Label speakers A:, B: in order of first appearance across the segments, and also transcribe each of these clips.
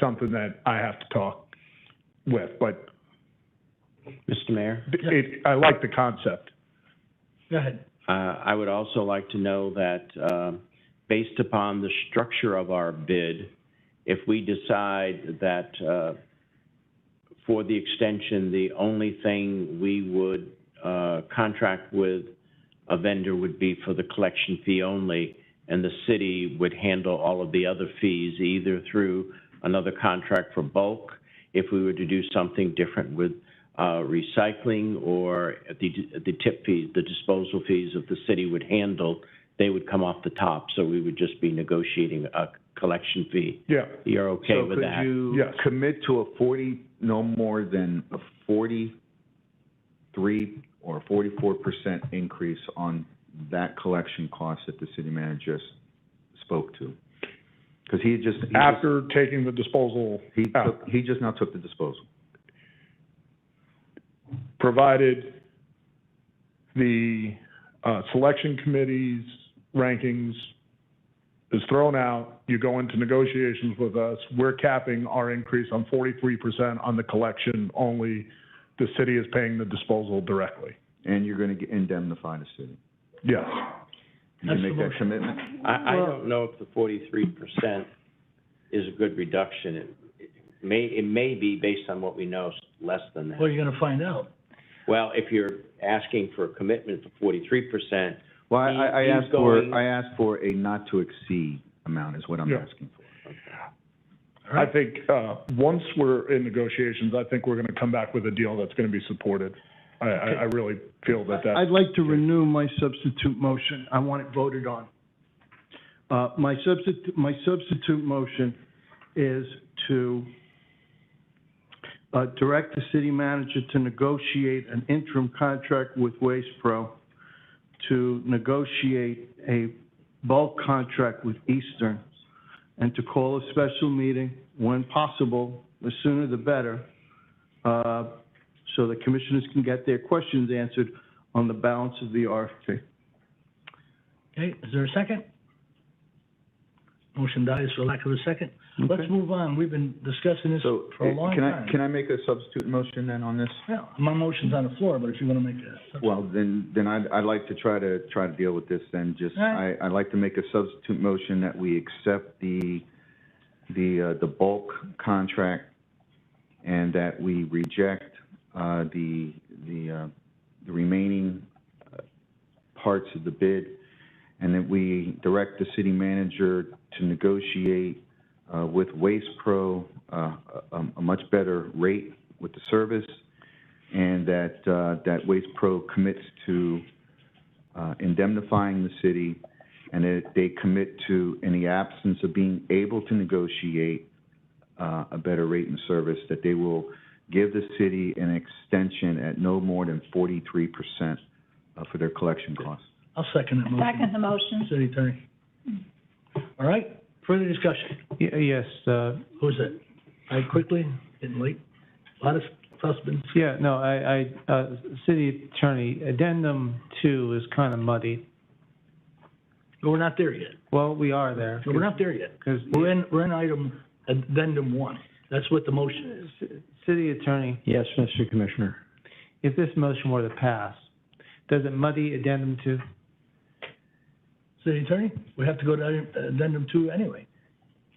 A: something that I have to talk with, but
B: Mr. Mayor,
A: it, I like the concept.
C: Go ahead.
B: uh, I would also like to know that, uh, based upon the structure of our bid, if we decide that, uh, for the extension, the only thing we would, uh, contract with a vendor would be for the collection fee only, and the city would handle all of the other fees either through another contract for bulk, if we were to do something different with uh, recycling or at the at the tip fees, the disposal fees that the city would handle, they would come off the top, so we would just be negotiating a collection fee.
A: Yeah,
B: You're okay with that?
D: So could you
A: Yes.
D: commit to a forty, no more than a forty-three or forty-four percent increase on that collection cost that the city manager just spoke to? Because he just, he just,
A: after taking the disposal,
D: he took, he just now took the disposal.
A: provided the, uh, selection committee's rankings is thrown out, you go into negotiations with us, we're capping our increase on forty-three percent on the collection only. The city is paying the disposal directly.
D: And you're gonna get- indemnify the city.
A: Yes,
D: You
C: That's
D: can make
C: the
D: that commitment?
B: I, I don't know if the forty-three percent is a good reduction. It- It may, it may be based on what we know, s- less than
C: What
B: that.
C: are you gonna find out?
B: Well, if you're asking for a commitment for forty-three percent,
D: Well, I, I I
B: He- he's
D: asked for,
B: going-
D: I asked for a not to exceed amount is what I'm
A: Yeah.
D: asking for.
C: All
A: I
C: right?
A: think, uh, once we're in negotiations, I think we're gonna come back with a deal that's gonna be supported. I, I, I really feel that that.
E: I'd like to renew my substitute motion. I want it voted on. Uh, my substitute, my substitute motion is to uh, direct the city manager to negotiate an interim contract with Waste Pro to negotiate a bulk contract with Eastern and to call a special meeting when possible, the sooner the better, uh, so the commissioners can get their questions answered on the balance of the RFP.
C: Okay, is there a second? Motion dies for lack of a second. Let's move on. We've been discussing this
D: So,
C: for a
D: eh,
C: long
D: can
C: time.
D: I, can I make a substitute motion then on this?
C: Yeah, my motion's on the floor, but if you wanna make a,
D: Well, then, then I'd, I'd like to try to, try to deal with this then, just,
C: All
D: I,
C: right.
D: I'd like to make a substitute motion that we accept the, the, uh, the bulk contract and that we reject, uh, the, the, uh, the remaining uh, parts of the bid and that we direct the city manager to negotiate, uh, with Waste Pro, uh, a, a much better rate with the service and that, uh, that Waste Pro commits to, uh, indemnifying the city, and that they commit to, in the absence of being able to negotiate, uh, a better rate and service, that they will give the city an extension at no more than forty-three percent, uh, for their collection costs.
C: I'll second that motion.
F: Second the motion.
C: City attorney. All right, further discussion.
G: Yes, uh,
C: Who's it? I quickly, getting late. A lot of stuff's been
G: yeah, no, I, I, uh, city attorney, addendum two is kind of muddy.
C: But we're not there yet.
G: Well, we are there.
C: We're not there yet.
G: Because
C: We're in, we're in item, addendum one. That's what the motion is.
G: city attorney,
E: Yes, Mr. Commissioner.
G: if this motion were to pass, does it muddy addendum two?
C: City attorney, we have to go to item- addendum two anyway.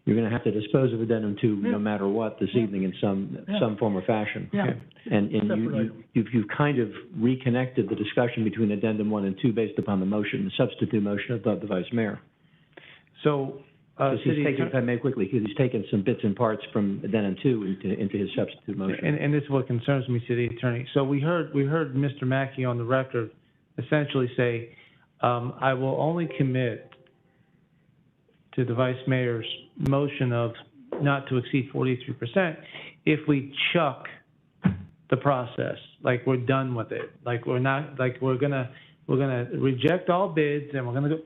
H: You're going to have to dispose of addendum two,
C: Yeah.
H: no matter what, this evening in some,
C: Yeah.
H: some form or fashion.
C: Yeah.
H: And, and you-
C: Separate
H: you,
C: item.
H: you've, you've kind of reconnected the discussion between addendum one and two based upon the motion, the substitute motion of the the vice mayor.
G: So, uh,
H: 'Cause he's
G: city
H: taken, if
G: attorney,
H: I may quickly, because he's taken some bits and parts from addendum two into, into his substitute motion.
G: and, and this is what concerns me, city attorney. So we heard, we heard Mr. Mackey on the record essentially say, um, I will only commit to the vice mayor's motion of not to exceed forty-three percent if we chuck the process, like we're done with it, like we're not, like we're gonna, we're gonna reject all bids and we're gonna go,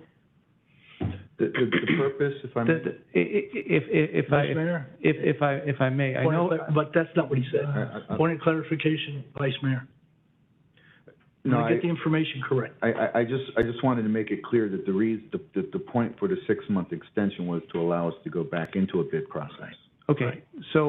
D: The, the, the purpose, if I
G: the,
D: may,
G: the, i- i- if, if, if I,
C: Vice Mayor?
G: if, if I, if I may, I
C: Point of
G: know,
C: clar- But that's not what he said.
D: I- I- I-
C: Point of clarification, Vice Mayor.
D: no,
C: Let me
D: I,
C: Get the information correct.
D: I, I, I just, I just wanted to make it clear that the reason, the, the, the point for the six-month extension was to allow us to go back into a bid process.
G: Okay, so